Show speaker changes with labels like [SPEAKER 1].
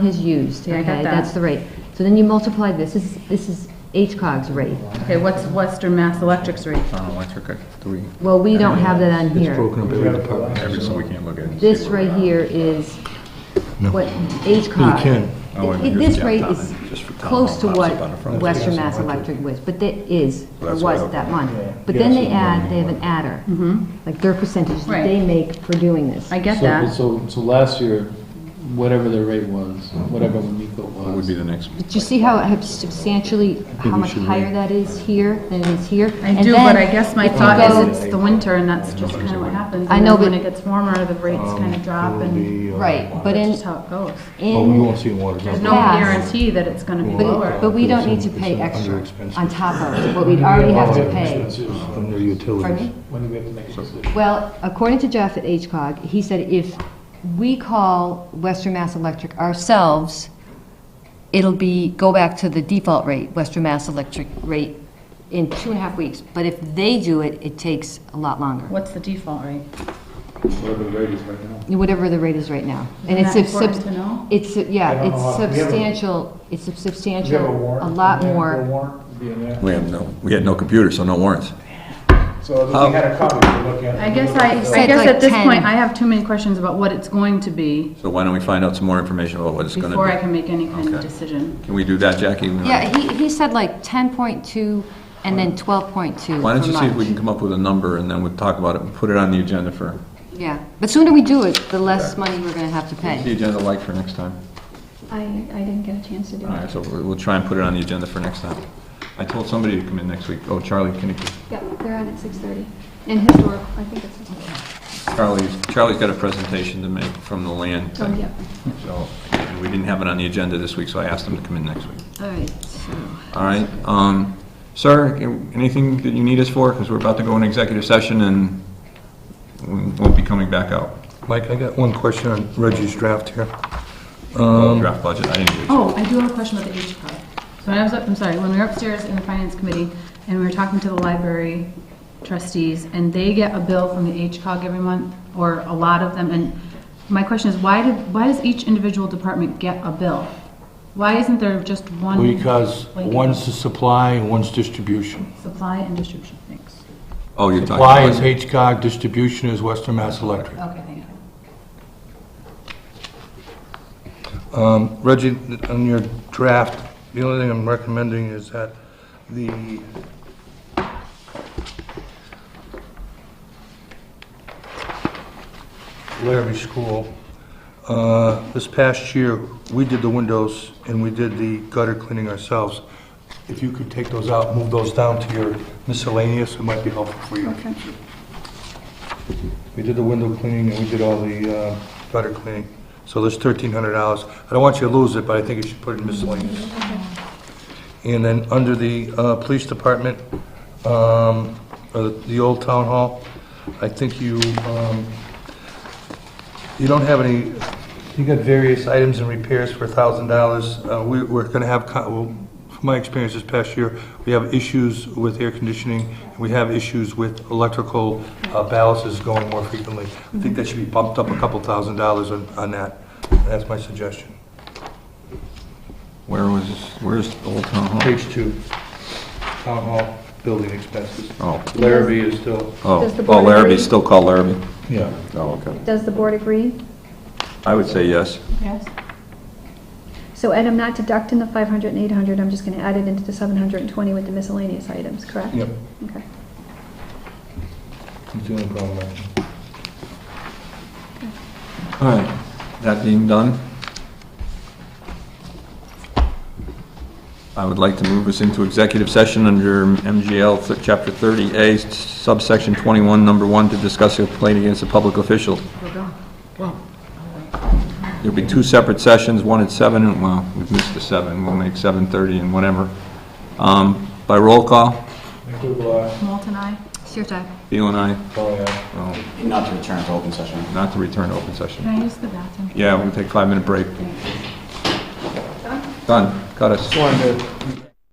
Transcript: [SPEAKER 1] has used,
[SPEAKER 2] Yeah, I got
[SPEAKER 1] okay,
[SPEAKER 2] that.
[SPEAKER 1] that's the rate. So then you multiply this, this is, this is HCOG's rate.
[SPEAKER 2] Okay, what's Western Mass Electric's rate?
[SPEAKER 3] Uh, electric at three,
[SPEAKER 1] Well, we don't have that on
[SPEAKER 4] It's
[SPEAKER 1] here.
[SPEAKER 4] broken up every department.
[SPEAKER 3] every, so we can't look at it. and see
[SPEAKER 1] This
[SPEAKER 3] where
[SPEAKER 1] right
[SPEAKER 3] we're
[SPEAKER 1] here
[SPEAKER 3] at.
[SPEAKER 1] is
[SPEAKER 4] No.
[SPEAKER 1] what HCOG.
[SPEAKER 4] You can.
[SPEAKER 3] Oh, wait
[SPEAKER 1] It-
[SPEAKER 3] a minute,
[SPEAKER 1] it-
[SPEAKER 3] here's
[SPEAKER 1] This
[SPEAKER 3] the
[SPEAKER 1] rate
[SPEAKER 3] gap
[SPEAKER 1] is
[SPEAKER 3] down, just for town
[SPEAKER 1] close
[SPEAKER 3] hall
[SPEAKER 1] to
[SPEAKER 3] pops
[SPEAKER 1] what
[SPEAKER 3] up on the front.
[SPEAKER 1] Western Mass Electric was, but that is, or
[SPEAKER 3] That's what
[SPEAKER 1] was
[SPEAKER 3] I-
[SPEAKER 1] that month.
[SPEAKER 4] Yeah.
[SPEAKER 1] But
[SPEAKER 4] Yeah,
[SPEAKER 1] then
[SPEAKER 4] so
[SPEAKER 1] they
[SPEAKER 4] the
[SPEAKER 1] add,
[SPEAKER 4] money
[SPEAKER 1] they have
[SPEAKER 4] went
[SPEAKER 1] an adder, like their percentage that
[SPEAKER 2] Right.
[SPEAKER 1] they make for doing this.
[SPEAKER 2] I get
[SPEAKER 5] So-
[SPEAKER 2] that.
[SPEAKER 5] So, so last year, whatever their rate was, whatever Wamiko
[SPEAKER 3] What would
[SPEAKER 5] was,
[SPEAKER 3] be the next?
[SPEAKER 1] Do you see how it has substantially, how
[SPEAKER 4] we
[SPEAKER 1] much
[SPEAKER 4] should
[SPEAKER 1] higher
[SPEAKER 4] wait.
[SPEAKER 1] that is here than it is here?
[SPEAKER 2] I
[SPEAKER 1] And
[SPEAKER 2] do, but
[SPEAKER 1] then
[SPEAKER 2] I guess my
[SPEAKER 1] if you
[SPEAKER 2] thought
[SPEAKER 1] go-
[SPEAKER 2] is it's the winter and that's just kind of what happens.
[SPEAKER 1] I
[SPEAKER 2] And
[SPEAKER 1] know,
[SPEAKER 2] then When
[SPEAKER 1] but-
[SPEAKER 2] it gets warmer, the rates
[SPEAKER 3] Um,
[SPEAKER 2] kind of drop and
[SPEAKER 1] Right, but in,
[SPEAKER 2] that's just how it goes.
[SPEAKER 4] Well, Oh, we
[SPEAKER 1] in,
[SPEAKER 4] won't see in water.
[SPEAKER 2] There's no
[SPEAKER 1] Past.
[SPEAKER 2] guarantee that it's going to be
[SPEAKER 1] but,
[SPEAKER 2] lower.
[SPEAKER 1] but we don't need to pay
[SPEAKER 4] It's under
[SPEAKER 1] extra
[SPEAKER 4] expenses.
[SPEAKER 1] on top of what we'd already have to pay.
[SPEAKER 4] Under
[SPEAKER 1] Pardon
[SPEAKER 4] utilities.
[SPEAKER 1] me?
[SPEAKER 5] when do we have to make a decision?
[SPEAKER 1] Well, according to Jeff at HCOG, he said if we call Western Mass Electric ourselves, it'll be, go back to the default rate, Western Mass Electric rate, in two and a half weeks. But if they do it, it takes a lot longer,
[SPEAKER 2] What's the default rate?
[SPEAKER 5] Whatever the rate is right now.
[SPEAKER 1] whatever the rate is right now. And
[SPEAKER 2] Isn't
[SPEAKER 1] it's
[SPEAKER 2] that
[SPEAKER 1] a sub-
[SPEAKER 2] important to know?
[SPEAKER 1] It's,
[SPEAKER 6] I
[SPEAKER 1] yeah,
[SPEAKER 6] don't know
[SPEAKER 1] it's
[SPEAKER 6] how- we have a-
[SPEAKER 1] substantial, it's substantial,
[SPEAKER 6] Do you have a warrant?
[SPEAKER 1] a lot
[SPEAKER 6] Do you have
[SPEAKER 1] more.
[SPEAKER 6] a warrant? Do you have-
[SPEAKER 3] We have no, we had no computer, so no warrants.
[SPEAKER 6] So if we had a copy to look at.
[SPEAKER 2] I guess I, I
[SPEAKER 1] Said
[SPEAKER 2] guess
[SPEAKER 1] like
[SPEAKER 2] at this
[SPEAKER 1] 10.
[SPEAKER 2] point, I have too many questions about what it's going to be
[SPEAKER 3] So why don't we find out some more information about what it's gonna
[SPEAKER 2] before I
[SPEAKER 3] be?
[SPEAKER 2] can make any kind of
[SPEAKER 3] Okay.
[SPEAKER 2] decision.
[SPEAKER 3] Can we do that, Jackie? We might-
[SPEAKER 1] Yeah, he, he said like 10.2 and then 12.2
[SPEAKER 3] Why don't
[SPEAKER 1] for
[SPEAKER 3] you see if we
[SPEAKER 1] March.
[SPEAKER 3] can come up with a number and then we'll talk about it and put it on the agenda for,
[SPEAKER 1] Yeah, but sooner we do it, the less money we're gonna have to
[SPEAKER 3] the
[SPEAKER 1] pay.
[SPEAKER 3] agenda like for next time.
[SPEAKER 7] I, I didn't get a chance to do
[SPEAKER 3] All
[SPEAKER 7] it.
[SPEAKER 3] right, so we'll we'll try and put it on the agenda for next time. I told somebody to come in next week. Oh, Charlie, can you,
[SPEAKER 7] Yeah, they're on at 6:30. In historical, I think it's historical.
[SPEAKER 3] Charlie's, Charlie's got a presentation to make from the land
[SPEAKER 7] Oh,
[SPEAKER 3] thing.
[SPEAKER 7] yeah.
[SPEAKER 3] So, and we didn't have it on the agenda this week, so I asked him to come in next week.
[SPEAKER 1] All right, so.
[SPEAKER 3] All right, um, sir, anything that you need us for? Because we're about to go in executive session and we won't be coming back out.
[SPEAKER 4] Mike, I got one question on Reggie's draft here.
[SPEAKER 3] Draft budget, I didn't do it.
[SPEAKER 2] Oh, I do have a question about the H card. So when I was, up- I'm sorry, when we were upstairs in the finance committee and we were talking to the library trustees and they get a bill from the HCOG every month or a lot of them. And my question is, why did, why does each individual department get a bill? Why isn't there just one?
[SPEAKER 4] Because
[SPEAKER 2] like,
[SPEAKER 4] one's the supply and one's distribution.
[SPEAKER 2] Supply and distribution, thanks.
[SPEAKER 3] Oh, you're talking
[SPEAKER 4] Supply is
[SPEAKER 3] about,
[SPEAKER 4] HCOG, distribution is Western Mass Electric.
[SPEAKER 2] Okay, thank you.
[SPEAKER 4] Um, Reggie, on your draft, the only thing I'm recommending is that the... Larrabee School, uh, this past year, we did the windows and we did the gutter cleaning ourselves. If you could take those out, move those down to your miscellaneous, it might be helpful for you. We did the window cleaning and we did all the uh, gutter cleaning. So there's thirteen hundred dollars. I don't want you to lose it, but I think you should put it in miscellaneous. And then under the uh, police department, um, uh, the old town hall, I think you, um, you don't have any, you got various items and repairs for thousand dollars. Uh, We, we're gonna have, co- well, from my experience this past year, we have issues with air conditioning, and we have issues with electrical uh, balances going more frequently. I think that should be bumped up a couple thousand dollars on, on that. That's my suggestion.
[SPEAKER 3] where was, where's the Old Town Hall?
[SPEAKER 4] Page two, town hall building expenses.
[SPEAKER 3] Oh,
[SPEAKER 4] Larrabee is still,
[SPEAKER 3] oh,
[SPEAKER 7] Does the
[SPEAKER 3] oh,
[SPEAKER 7] board
[SPEAKER 3] Larrabee's
[SPEAKER 7] agree?
[SPEAKER 3] still called Larrabee?
[SPEAKER 4] yeah.
[SPEAKER 3] Oh, okay.
[SPEAKER 7] Does the board agree?
[SPEAKER 3] I would say yes.
[SPEAKER 2] Yes?
[SPEAKER 7] So Ed, I'm not deducting the 500 and 800, I'm just going to add it into the 720 with the miscellaneous items, correct?
[SPEAKER 4] Yep.
[SPEAKER 7] Okay.
[SPEAKER 4] He's doing a problem.
[SPEAKER 3] All right, that being done, I would like to move us into executive session under MGL th- Chapter 30A, s- subsection 21, number 1, to discuss a complaint against a public official. There'll be two separate sessions, one at 7, and, well, we've missed the 7, we'll make 7:30 and whatever. Um, By roll call,
[SPEAKER 2] Moulton, aye?
[SPEAKER 1] Sure,
[SPEAKER 3] Beal and I,
[SPEAKER 4] Oh,
[SPEAKER 3] well,
[SPEAKER 8] Not to return to open session.
[SPEAKER 3] not to return to open session.
[SPEAKER 2] Can I use the bathroom?
[SPEAKER 3] Yeah, we'll take a five-minute break. Done, cut us.
[SPEAKER 4] yeah.